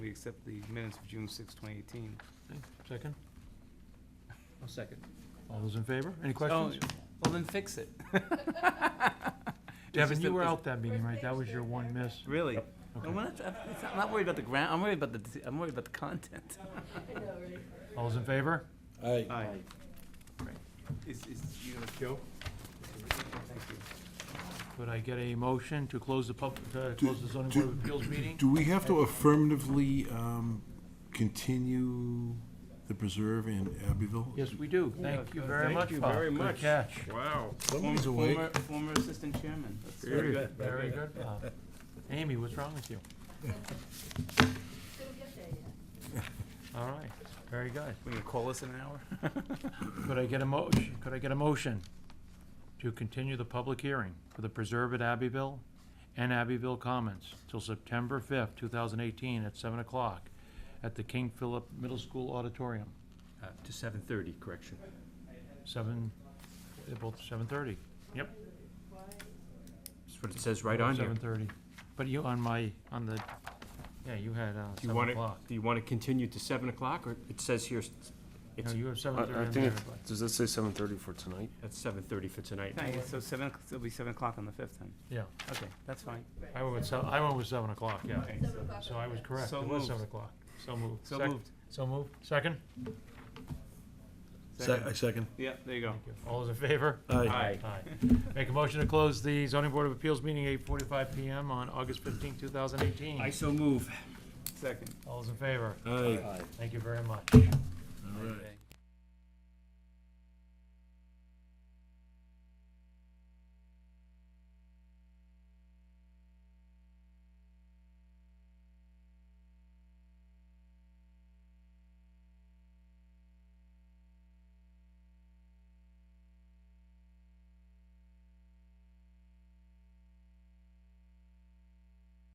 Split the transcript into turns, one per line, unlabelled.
We accept the minutes of June 6, 2018.
Second?
I'll second.
All those in favor? Any questions?
Oh, Well, then fix it. It's
Devin,
just
you
a-
were
it's-
out that meeting, right? That was your one miss.
Really?
Okay.
I'm not, I'm not worried about the ground, I'm worried about the, I'm worried about the content.
All those in favor?
Aye.
Aye. Is, is, you know, Joe? Thank you.
Could I get a motion to close the pub, uh, close the zoning board of appeals meeting?
Do we have to affirmatively um, continue the preserve in Abbeville?
Yes, we do. Thank you very much, Bob.
very much.
Good catch.
Wow.
Somebody's
Former-
awake.
former- Former assistant chairman. That's
Very
good.
Very good, Bob. Amy, what's wrong with you? All right, very good.
We can call us in an hour?
Could I get a motion, could I get a motion to continue the public hearing for the Preserve at Abbeville and Abbeville Commons till September fifth, two thousand eighteen, at seven o'clock at the King Philip Middle School Auditorium,
Uh, To seven thirty, correction.
seven, they're both seven thirty. Yep.
That's what it says right on here.
Seven thirty. But you, on my, on the, yeah, you had, uh,
Do you
seven
want to,
o'clock.
do you want to continue to seven o'clock, or it says here, s-
No,
it's,
you have
I
seven
I
thirty in there,
think, it-
but,
does that say seven thirty for tonight?
that's seven thirty for tonight?
Thank you. So seven, o'clock- it'll be seven o'clock on the fifth then.
yeah.
Okay, that's fine.
I went with seven, I went with seven o'clock, yeah.
Okay, so-
So I was correct.
So
It was
moved.
seven o'clock. So moved.
So
Sec-
moved.
So moved. Second?
Se- I second.
Yeah, there you go.
Thank you. All those in favor?
Aye.
Aye.
Aye. Make a motion to close the zoning board of appeals meeting eight forty-five PM on August fifteenth, two thousand
I
eighteen.
so move.
Second.
All those in favor?
Aye.
Thank you very much.
All right.
Okay.